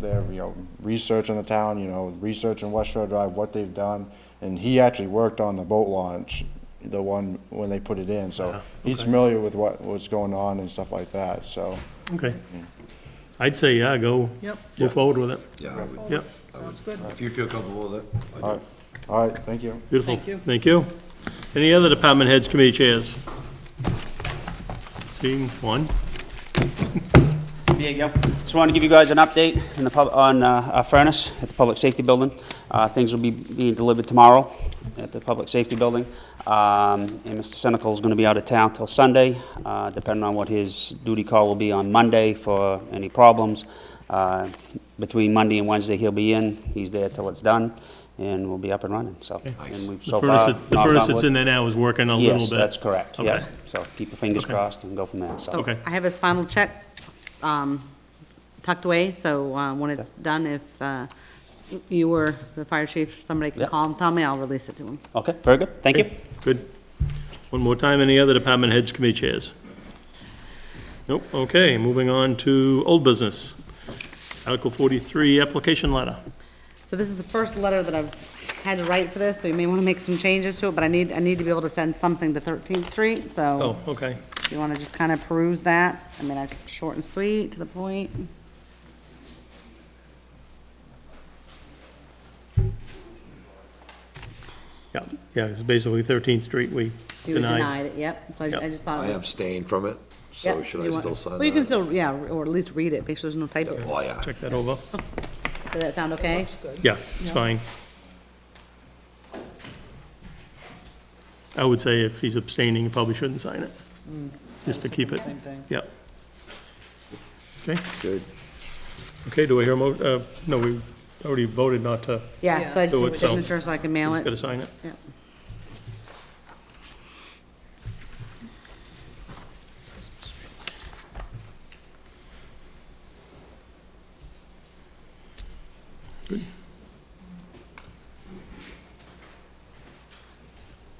their, you know, research in the town, you know, research in West Shore Drive, what they've done. And he actually worked on the boat launch, the one when they put it in, so he's familiar with what, what's going on and stuff like that, so. Okay. I'd say, yeah, go, Yep. go forward with it. Yeah, I would- Yep, Sounds good. if you feel comfortable with it. I do. All right, all right, thank you. beautiful. Thank you. Thank you. Any other department heads, committee chairs? Seeing one? There you go. Just wanted to give you guys an update in the pub, on uh, our furnace at the Public Safety Building. Uh, Things will be being delivered tomorrow at the Public Safety Building. Um, And Mr. Senekal is going to be out of town till Sunday, uh, depending on what his duty call will be on Monday for any problems. Uh, Between Monday and Wednesday, he'll be in. He's there till it's done, and we'll be up and running, so. and we've The so furnace, far, that- the knock furnace on that's wood- in there now is working a little bit. Yes, that's correct, yeah. Okay. So keep your fingers Okay. crossed and go from there, so. So Okay. I have his final check um, tucked away, so uh, when it's done, if uh, you or the fire chief, somebody can Yep. call him, tell me, I'll release it to him. Okay, very good, thank you. Good. One more time, any other department heads, committee chairs? Nope, okay, moving on to old business. Article forty-three, application letter. So this is the first letter that I've had to write for this, so you may want to make some changes to it, but I need, I need to be able to send something to 13th Street, Oh, so okay. if you want to just kind of peruse that. I mean, I short and sweet, to the point. Yeah, yeah, it's basically Thirteenth Street, we You denied. denied it, yep, so I Yep. I just thought I it was. abstain from it, so Yep, should I you want- still sign that? Well, you can still, yeah, or at least read it, make sure there's no typos. Oh, yeah. Check that over. Does that sound okay? Yeah, it's fine. I would say if he's abstaining, he probably shouldn't sign it, just to keep it. Mm. Same thing. Yep. Okay, Good. okay, do I hear a mo, uh, no, we already voted not to, Yeah, so I just So need a it's, um, signature so I can mail he's gotta it. sign it. Yep.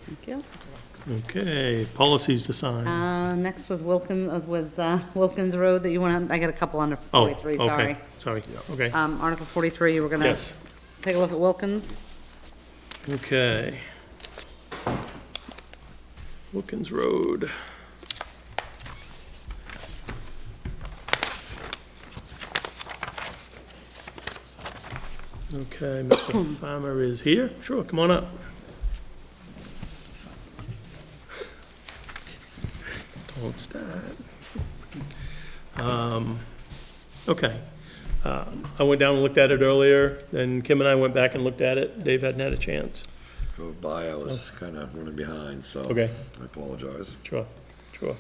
Thank you. Okay, policies to sign. Uh, next was Wilkins, was uh, Wilkins Road that you want, I got a couple under Oh, forty-three, okay, sorry, sorry. Uh, okay, Um, Article forty-three, you were gonna yes, take a look at Wilkins. okay. Wilkins Road. Okay, Mr. Farmer is here, sure, come on up. Don't start. Um, Okay, Uh, I went down and looked at it earlier, then Kim and I went back and looked at it, Dave hadn't had a chance. Drove by, I was kind of running behind, so. Okay. I apologize. Sure, sure.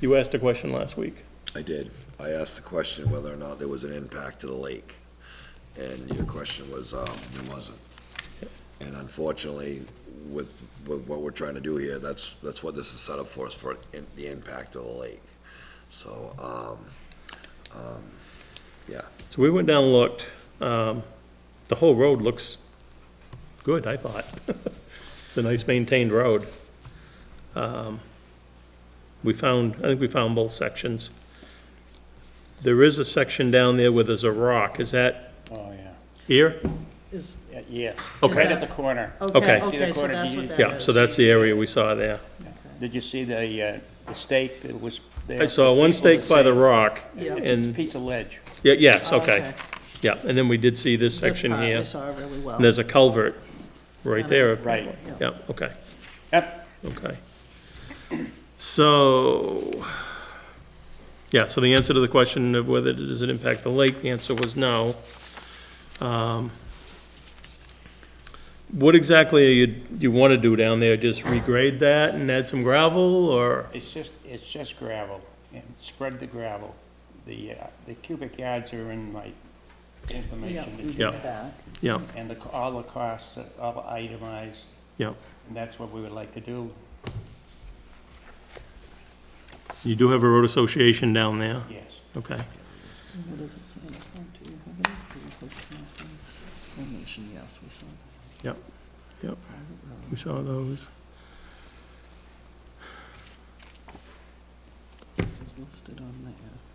You asked a question last week. I did. I asked the question whether or not there was an impact to the lake, and your question was, um, there wasn't. And unfortunately, with, with what we're trying to do here, that's, that's what this is set up for, is for in- the impact of the lake. So, um, So we went down and looked, um, the whole road looks good, I thought. It's a nice maintained road. Um, We found, I think we found both sections. There is a section down there where there's a rock, is that Oh, yeah. here? Is, Yeah, Yes. Okay. Right at the corner. Okay. See Okay. the the corner corner here? here? Yeah, so that's the area we saw there. Did you see the, uh, the stake that was there? I saw one stake by the rock, Yeah. and, Piece of ledge. yeah, yes, Oh, okay, yeah, and then we did see this section This part here. we saw really well. And Oh. there's a culvert right Yeah. there. Right. Yeah, okay, Yep, okay. So, yeah, so the answer to the question of whether does it impact the lake, the answer was no. Um, What exactly are you, you want to do down there? Just regrade that and add some gravel, or? it's just, it's just gravel, and spread the gravel. The, uh, the cubic yards are in my Yeah, information, it's that in you- the back. Yeah, and the, all the costs are all itemized, yeah. and that's what we would like to do, You do have a road association down there, yes. okay. What does it say? Do you have it? Do you have it? Formation, yes, we saw. Yep, yep. We saw those. It was listed on there.